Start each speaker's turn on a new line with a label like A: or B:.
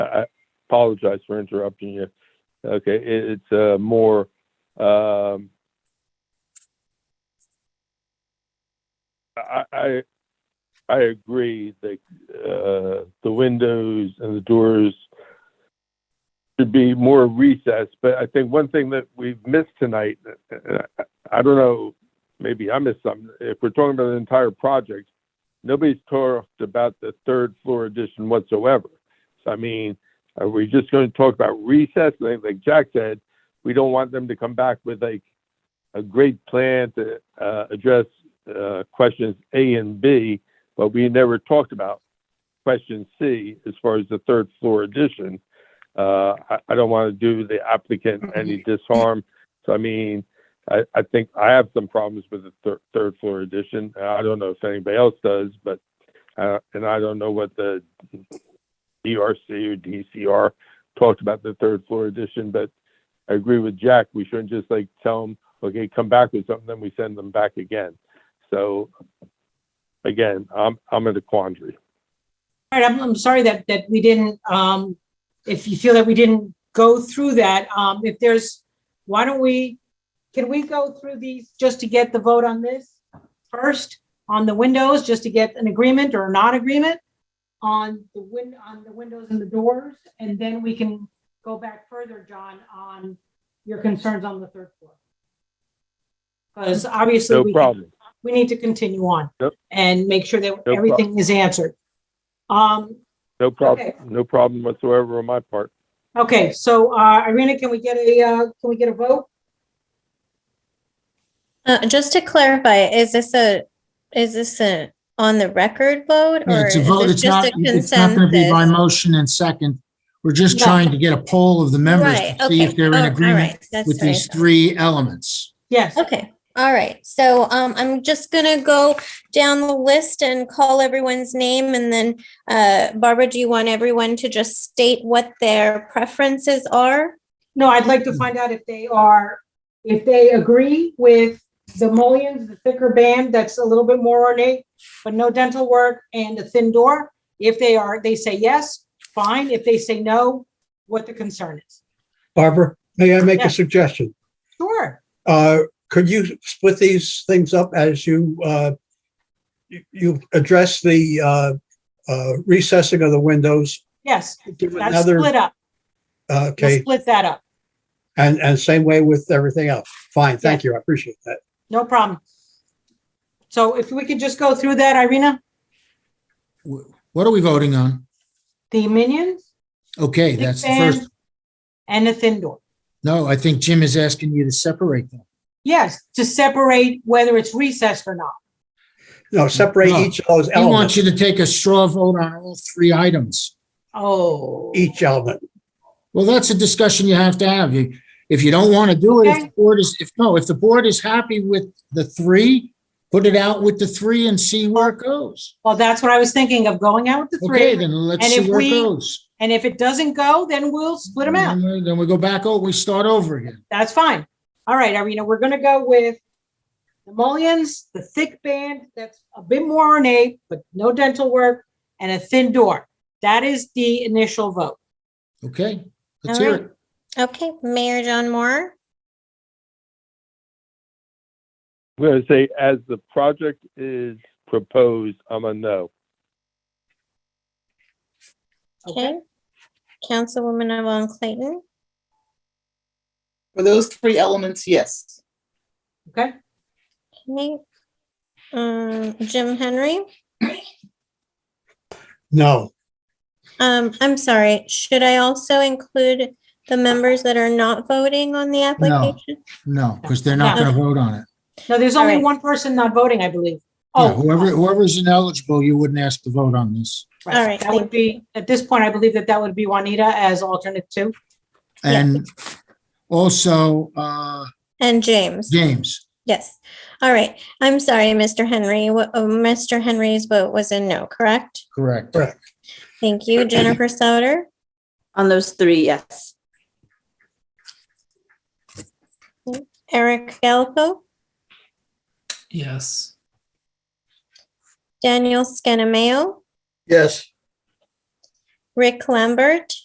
A: apologize for interrupting you. Okay, it, it's, uh, more, um, I, I, I agree that, uh, the windows and the doors should be more recessed, but I think one thing that we've missed tonight, uh, I don't know, maybe I missed something. If we're talking about the entire project, nobody's talked about the third floor addition whatsoever. So I mean, are we just going to talk about recess? Like, like Jack said, we don't want them to come back with like a great plan to uh, address uh, questions A and B, but we never talked about question C as far as the third floor addition. Uh, I, I don't want to do the applicant any disharm. So I mean, I, I think I have some problems with the thir- third floor addition. I don't know if anybody else does, but uh, and I don't know what the DRC or DCR talked about the third floor addition, but I agree with Jack. We shouldn't just like tell them, okay, come back with something, then we send them back again. So again, I'm I'm in a quandary.
B: All right, I'm, I'm sorry that, that we didn't, um, if you feel that we didn't go through that, um, if there's, why don't we, can we go through these just to get the vote on this first? On the windows, just to get an agreement or non-agreement on the win, on the windows and the doors? And then we can go back further, John, on your concerns on the third floor. Because obviously.
A: No
B: we can-
A: problem.
B: we need to continue on
A: Yep.
B: and make sure that
A: problem.
B: everything is answered. Um,
A: No problem.
B: Okay.
A: No problem whatsoever on my part.
B: okay, so, uh, Irina, can we get a, uh, can we get a vote?
C: Uh, just to clarify, is this a, is this a on the record vote?
D: Yeah,
C: or
D: It's a
C: is
D: vote.
C: this
D: It's not,
C: just a
D: it's not going to be by
C: consensus?
D: motion and second. We're just
B: No.
D: trying to get a poll of the members
C: Right,
D: to see
C: okay.
D: if they're
C: Oh,
D: in
C: all
D: agreement
C: right. That's
D: with
C: what I
D: these
C: thought.
D: three elements.
B: Yes,
C: Okay, all right. So um, I'm just gonna go down the list and call everyone's name and then uh, Barbara, do you want everyone to just state what their preferences are?
B: no, I'd like to find out if they are, if they agree with the mullions, the thicker band that's a little bit more ornate, but no dental work and a thin door. If they are, they say yes, fine. If they say no, what the concern is.
E: Barbara, may I make
B: Yeah.
E: a suggestion?
B: Sure,
E: Uh, Could you split these things up as you, uh, you- you address the uh, uh, recessing of the windows?
B: yes,
E: Give
B: that's
E: another,
B: split up.
E: uh,
B: Let's
E: okay,
B: split that up.
E: and, and same way with everything else. Fine, thank you, I appreciate that.
B: No problem. So if we could just go through that, Irina,
D: Wh- What are we voting on?
B: the minions,
D: Okay,
B: thick
D: that's the first.
B: band, and a thin door.
D: No, I think Jim is asking you to separate them.
B: Yes, to separate whether it's recessed or not.
E: No, separate
D: No.
E: each of those
D: He wants
E: elements,
D: you to take a straw vote on all three items.
B: Oh,
E: each element.
D: Well, that's a discussion you have to have. You- If you don't want to do it, if the
B: Okay.
D: board is, if, no, if the board is happy with the three, put it out with the three and see where it goes.
B: well, that's what I was thinking of going out with the
D: Okay,
B: three.
D: then let's
B: And
D: see
B: if
D: where it
B: we-
D: goes.
B: And if it doesn't go, then we'll split them out.
D: Then- Then we go back, oh, we start over again.
B: That's fine. All right, Irina, we're gonna go with the mullions, the thick band that's a bit more ornate, but no dental work, and a thin door. That is the initial vote.
D: Okay, let's
C: All
D: hear
C: right.
D: it.
C: Okay, Mayor John Moore,
A: I'm going to say, as the project is proposed, I'm a no.
C: okay. Councilwoman Yvonne Clayton,
F: For those three elements, yes.
B: Okay,
C: okay. Um, Jim Henry.
E: No,
C: Um, I'm sorry, should I also include the members that are not voting on the application?
D: No, because they're not
B: No.
D: going to vote on it.
B: no, there's
C: All
B: only
C: right.
B: one person not voting, I believe.
D: Yeah,
B: Oh,
D: whoever, whoever's ineligible, you wouldn't ask to vote on this.
B: Right.
C: All right,
B: That would
C: thank
B: be, at this point, I believe that that would be Juanita as alternate two.
C: Yeah.
D: And also, uh,
C: And James?
D: James.
C: Yes. All right. I'm sorry, Mr. Henry. Wha- uh, Mr. Henry's vote was a no, correct?
D: Correct.
E: correct.
C: Thank you. Jennifer Sauter?
G: On those three, yes.
C: Eric Galpo?
H: Yes.
C: Daniel Scannamayo?
E: Yes.
C: Rick Lambert?